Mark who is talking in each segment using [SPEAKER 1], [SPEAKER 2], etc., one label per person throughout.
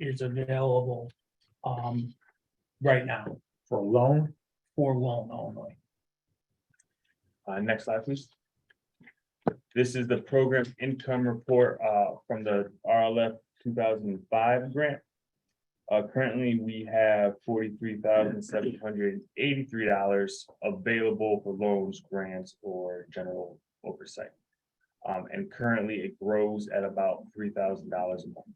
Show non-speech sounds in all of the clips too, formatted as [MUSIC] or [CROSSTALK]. [SPEAKER 1] is available, um, right now
[SPEAKER 2] for a loan.
[SPEAKER 1] for loan only.
[SPEAKER 2] Uh, next slide, please. This is the program income report, uh, from the RLF two thousand and five grant. Uh, currently, we have forty-three thousand seven hundred eighty-three dollars available for loans, grants, or general oversight. Um, and currently, it grows at about three thousand dollars a month.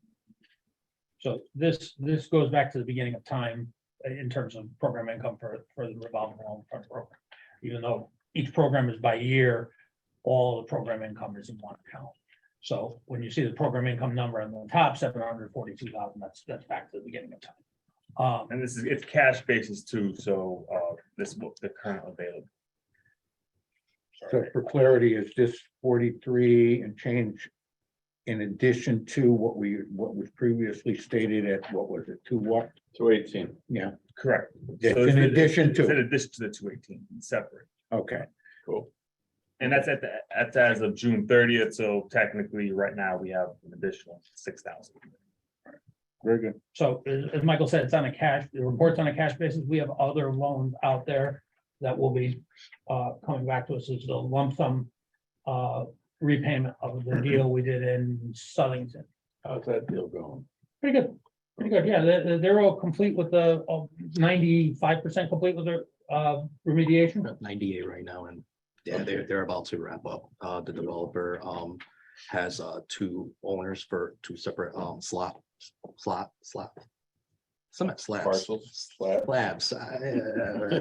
[SPEAKER 1] So this, this goes back to the beginning of time uh, in terms of program income for, for the revolving loan fund program. Even though each program is by year, all the program income is in one account. So when you see the program income number on the top, seven hundred forty-two thousand, that's, that's back to the beginning of time. Um,
[SPEAKER 2] And this is, it's cash basis too, so, uh, this, is what the current available.
[SPEAKER 3] So for clarity, is this forty-three and change in addition to what we, what was previously stated at, what was it, two what?
[SPEAKER 4] Two eighteen.
[SPEAKER 3] Yeah,
[SPEAKER 2] Correct. So
[SPEAKER 3] It's
[SPEAKER 2] it's
[SPEAKER 3] in addition
[SPEAKER 2] it's In
[SPEAKER 3] to,
[SPEAKER 2] addition to the two eighteen, separate.
[SPEAKER 3] okay,
[SPEAKER 4] Cool.
[SPEAKER 2] And that's at the, that's as of June thirtieth, so technically, right now, we have an additional six thousand.
[SPEAKER 3] very good.
[SPEAKER 1] So as, as Michael said, it's on a cash, the report's on a cash basis. We have other loans out there that will be uh, coming back to us as a lump sum uh, repayment of
[SPEAKER 4] [CLEARS THROAT]
[SPEAKER 1] the deal we did in Southington.
[SPEAKER 4] How's that deal going?
[SPEAKER 1] Pretty good, pretty good. Yeah, they- they, they're all complete with the ninety-five percent complete with their uh, remediation.
[SPEAKER 5] about ninety-eight right now, and yeah, they're, they're about to wrap up. Uh, the developer, um, has, uh, two owners for two separate, um, slot, slot, slot. Some at slabs,
[SPEAKER 3] [LAUGHS]
[SPEAKER 4] Parcels, slab.
[SPEAKER 5] slabs. uh,
[SPEAKER 4] We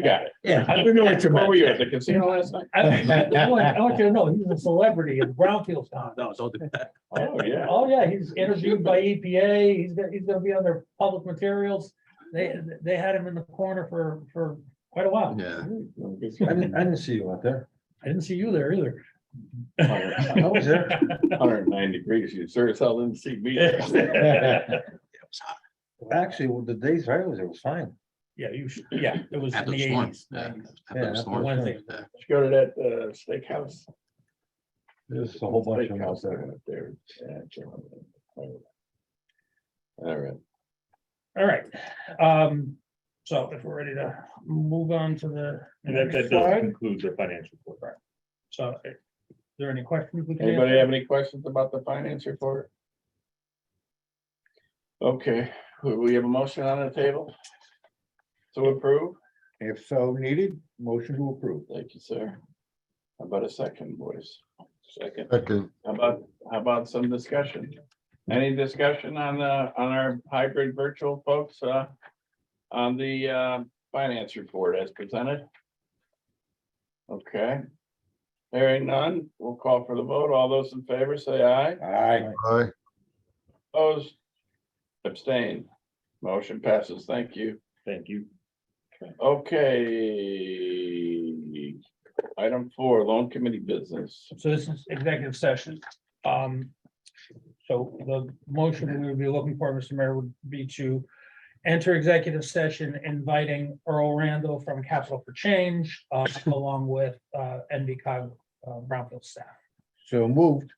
[SPEAKER 4] got it.
[SPEAKER 3] Yeah.
[SPEAKER 4] We know what you're. Where were you at the casino last night?
[SPEAKER 1] I I want I want you to know, he's a celebrity in Brownfield town.
[SPEAKER 5] No, don't do that.
[SPEAKER 4] Oh, yeah.
[SPEAKER 1] Oh, yeah, he's interviewed by EPA, he's gonna, he's gonna be on their public materials. They, they had him in the corner for, for quite a while.
[SPEAKER 5] Yeah.
[SPEAKER 3] I didn't, I didn't see you out there.
[SPEAKER 1] I didn't see you there either.
[SPEAKER 3] I was there. [LAUGHS]
[SPEAKER 4] Hundred and nine degrees, you sure as hell didn't see me.
[SPEAKER 5] It was hot.
[SPEAKER 3] Actually, well, the days I was, there was fine.
[SPEAKER 1] Yeah, you should, yeah, it was in
[SPEAKER 5] After
[SPEAKER 1] the
[SPEAKER 5] the storm.
[SPEAKER 1] eighties.
[SPEAKER 5] yeah,
[SPEAKER 3] Yeah,
[SPEAKER 5] after the
[SPEAKER 3] after
[SPEAKER 5] storm,
[SPEAKER 1] the storm.
[SPEAKER 5] yeah.
[SPEAKER 4] Did you go to that uh, steakhouse?
[SPEAKER 3] [LAUGHS] There's a whole bunch of them out there.
[SPEAKER 4] Steakhouse there. Yeah, I can't remember. All right.
[SPEAKER 1] All right, um, so if we're ready to move on to the.
[SPEAKER 2] And that, that
[SPEAKER 1] next
[SPEAKER 2] does
[SPEAKER 1] slide.
[SPEAKER 2] conclude the financial report.
[SPEAKER 1] So, is there any questions? we can answer?
[SPEAKER 4] Anybody have any questions about the finance report? Okay, we- we have a motion on the table. To approve,
[SPEAKER 3] If so needed, motion to approve.
[SPEAKER 4] thank you, sir. How about a second, boys? Second,
[SPEAKER 6] Second,
[SPEAKER 4] how about, how about some discussion? Any discussion on the, on our hybrid virtual folks, uh? On the, uh, finance report as presented? Okay. Hearing none, we'll call for the vote. All those in favor, say aye.
[SPEAKER 3] Aye.
[SPEAKER 6] aye,
[SPEAKER 4] Opposed? Abstain. Motion passes. Thank you.
[SPEAKER 2] Thank you.
[SPEAKER 4] Okay. Item four, loan committee business.
[SPEAKER 1] So this is executive session. Um, so the motion we would be looking for, Mr. Mayor, would be to enter executive session inviting Earl Randall from Capital for Change, uh, along with, uh, NBCOG, uh, Brownfield staff.
[SPEAKER 3] So moved.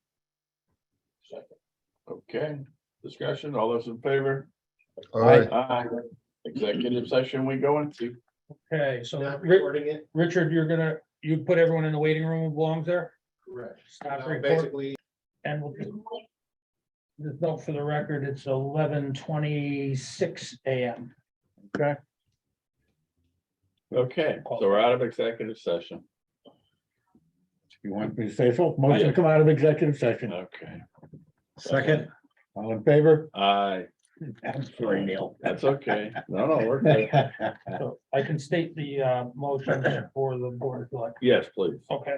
[SPEAKER 4] Second. Okay, discussion. All those in favor?
[SPEAKER 6] aye.
[SPEAKER 4] Aye. Executive session we go into.
[SPEAKER 1] Okay, so Ri-
[SPEAKER 7] it,
[SPEAKER 1] Richard, you're gonna, you put everyone in the waiting room who belongs there?
[SPEAKER 7] correct.
[SPEAKER 1] Stop
[SPEAKER 7] Now,
[SPEAKER 1] recording.
[SPEAKER 7] Basically,
[SPEAKER 1] And we'll just just note for the record, it's eleven twenty-six AM.
[SPEAKER 4] Okay, so we're out of executive session.
[SPEAKER 3] You want me to say so? Motion to come out of executive session.
[SPEAKER 4] Okay.
[SPEAKER 3] Second. All in favor?
[SPEAKER 4] Aye.
[SPEAKER 3] I'm sorry, Neil.
[SPEAKER 4] That's okay. No, no, we're good.
[SPEAKER 1] So I can state the, uh, motion for the board of selectmen.
[SPEAKER 4] Yes, please.
[SPEAKER 1] Okay,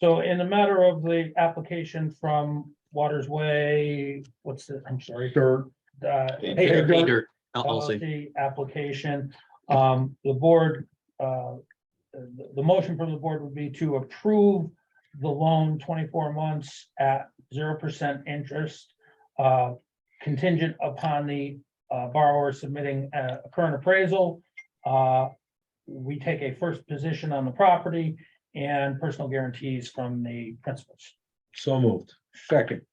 [SPEAKER 1] so in the matter of the application from Waters Way, what's the, I'm sorry.
[SPEAKER 3] Sure.
[SPEAKER 1] uh,
[SPEAKER 4] Hey,
[SPEAKER 1] Hey, Dirt
[SPEAKER 5] Peter, I'll- I'll say.
[SPEAKER 1] LLC application. Um, the board, uh, the, the motion from the board would be to approve the loan twenty-four months at zero percent interest, uh, contingent upon the uh, borrower submitting a a current appraisal. Uh, we take a first position on the property and personal guarantees from the principals.
[SPEAKER 3] So moved. [LAUGHS] Second.